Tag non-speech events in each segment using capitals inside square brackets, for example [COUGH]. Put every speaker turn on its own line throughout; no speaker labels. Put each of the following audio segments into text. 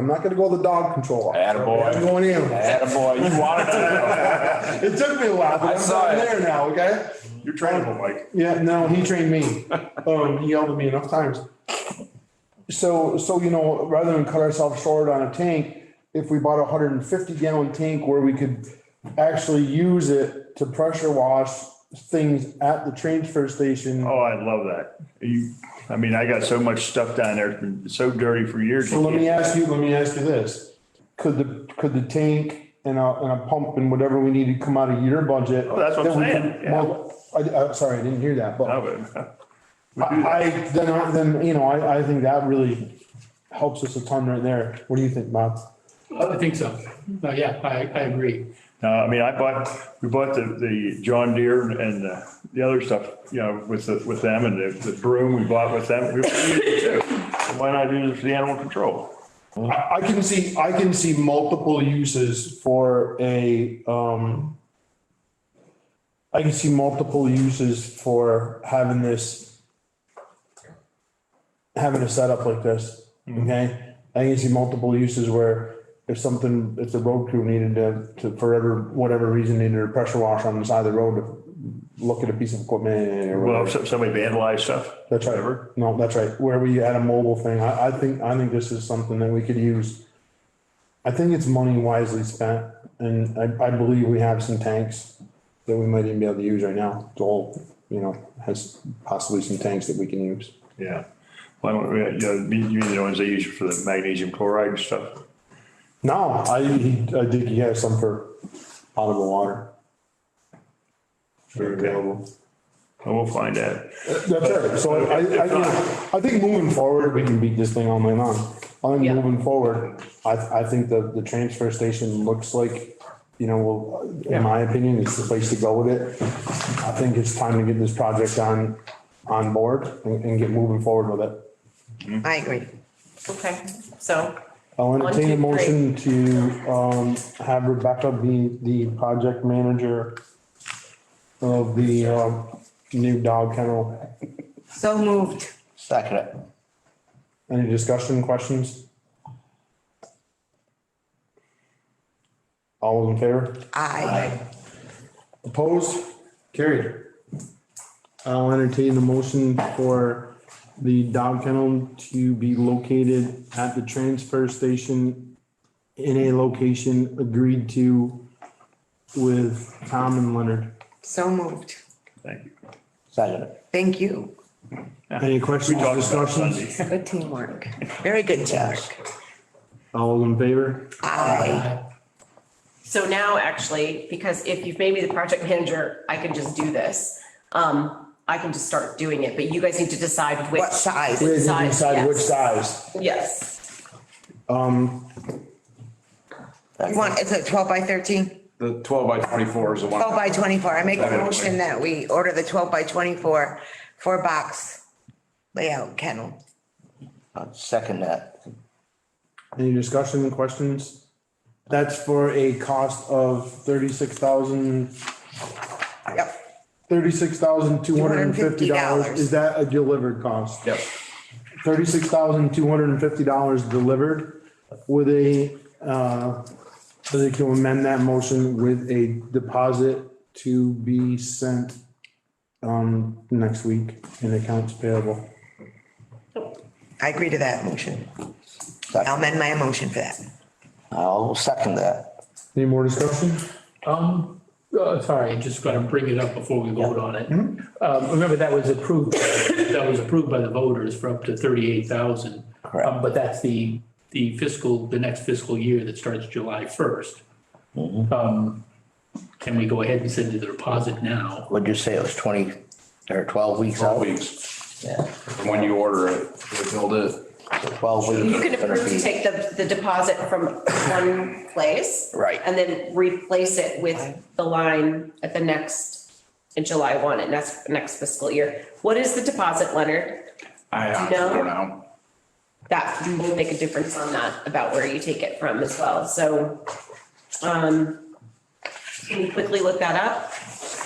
I'm not gonna go the dog control. officer.
Attaboy.
I'm going animals.
Attaboy, you wanted to.
It took me a
I
while, but I'm
saw
going
it.
there now, okay?
You're trainable, Mike.
Yeah, no, he
[LAUGHS]
trained me. Um, he yelled at me enough times. So, so, you know, rather than cut ourselves short on a tank, if we bought a hundred and fifty gallon tank where we could actually use it to pressure wash things at the transfer station.
Oh, I love that. You, I mean, I got so much stuff down there, it's been so dirty for years.
So let me ask you, let me ask you this. Could the, could the tank and a, and a pump and whatever we needed come out of your budget?
Oh, that's what
Then
I'm
we
saying,
could-
yeah.
Well, I, I'm sorry, I didn't hear that, but.
I would. We do that.
I, I- then, I- then, you know, I, I think that really helps us a ton right there. What do you think, Bob?
I think so. Uh, Yeah, I, I agree.
No, I mean, I bought, we bought the, the John Deere and uh, the other stuff, you know, with, the- with them and the the broom we bought with them. We- we use it too. Why not use it for the animal control?
I, I can see, I can see multiple uses for a, um, I can see multiple uses for having this, having a setup like this, okay? I can see multiple uses where if something, if the road crew needed to, to, for whatever, whatever reason, needed a pressure wash on the side of the road to look at a piece of equipment or whatever.
Well, if somebody vandalized stuff.
That's right.
whatever.
No, that's right. Where we had a mobile thing, I, I think, I think this is something that we could use. I think it's money wisely spent and I, I believe we have some tanks that we might even be able to use right now. Dole, you know, has possibly some tanks that we can use.
Yeah. Why don't, we- you know, you mean the ones they use for the magnesium chloride and stuff?
No, I, he, I think he has some for potable water.
They're available. And we'll find that.
That's right. So I, I, I, you know, I think moving forward, we can beat this thing all night long. I think
Yeah.
moving forward, I, I think the, the transfer station looks like, you know, well, in my opinion, it's the place to go with it. I think it's time to get this project on, on board and, and get moving forward with it.
I agree. Okay, so,
I'll entertain a
One, two, three.
motion to, um, have Rebecca be the project manager of the, um, new dog kennel.
so moved.
Second it.
Any discussion, questions? All those in favor?
Aye.
Opposed? Carried. I'll entertain the motion for the dog kennel to be located at the transfer station in a location agreed to with Tom and Leonard.
So moved.
Thank you.
Second it.
Thank you.
Any
We
questions,
talked about
discussions?
Sunday.
Good teamwork. Very good teamwork.
All those in favor?
Aye.
So now actually, because if you've made me the project manager, I can just do this. Um, I can just start doing it, but you guys need to decide which.
What size?
We
Which
need to
size,
decide which
yes.
size.
Yes,
Um,
You want, is it twelve by thirteen?
The twelve by twenty-four is the one.
Twelve by twenty-four. I make a motion that we order the twelve by twenty-four, four box layout kennel.
I'll Second that.
Any discussion, questions? That's for a cost of thirty-six thousand,
Yep,
thirty-six thousand two hundred and fifty dollars.
$250.
Is that a delivered cost?
Yep.
Thirty-six thousand two hundred and fifty dollars delivered with a, uh, so they can amend that motion with a deposit to be sent um, next week in accounts payable.
I agree to that motion. I'll
Second.
amend my motion for that.
I'll second that.
Any more discussion?
Um, uh, sorry, just gotta bring it up before we vote on it. Um, remember that was approved, that was approved by the voters for up to thirty-eight thousand. Um,
Correct.
But that's the, the fiscal, the next fiscal year that starts July first. Um, can we go ahead and send you the deposit now?
What'd you say? It was twenty or twelve weeks out?
Twelve weeks
Yeah.
from when you order it, they build it.
Twelve weeks.
you can
it's gonna
approve to
be-
take the, the deposit from one place.
Right.
And then replace it with the line at the next, in July one, and that's next fiscal year. What is the deposit, Leonard?
I honestly
No.
don't know.
that will make a difference on that, about where you take it from as well, so. Um, can you quickly look that up?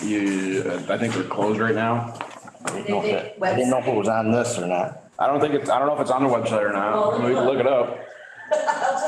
You, uh, I think we're closed right now.
I didn't know if it- I didn't know if it was on this or not.
I don't think it's, I don't know if it's on the website or not. We can look it up.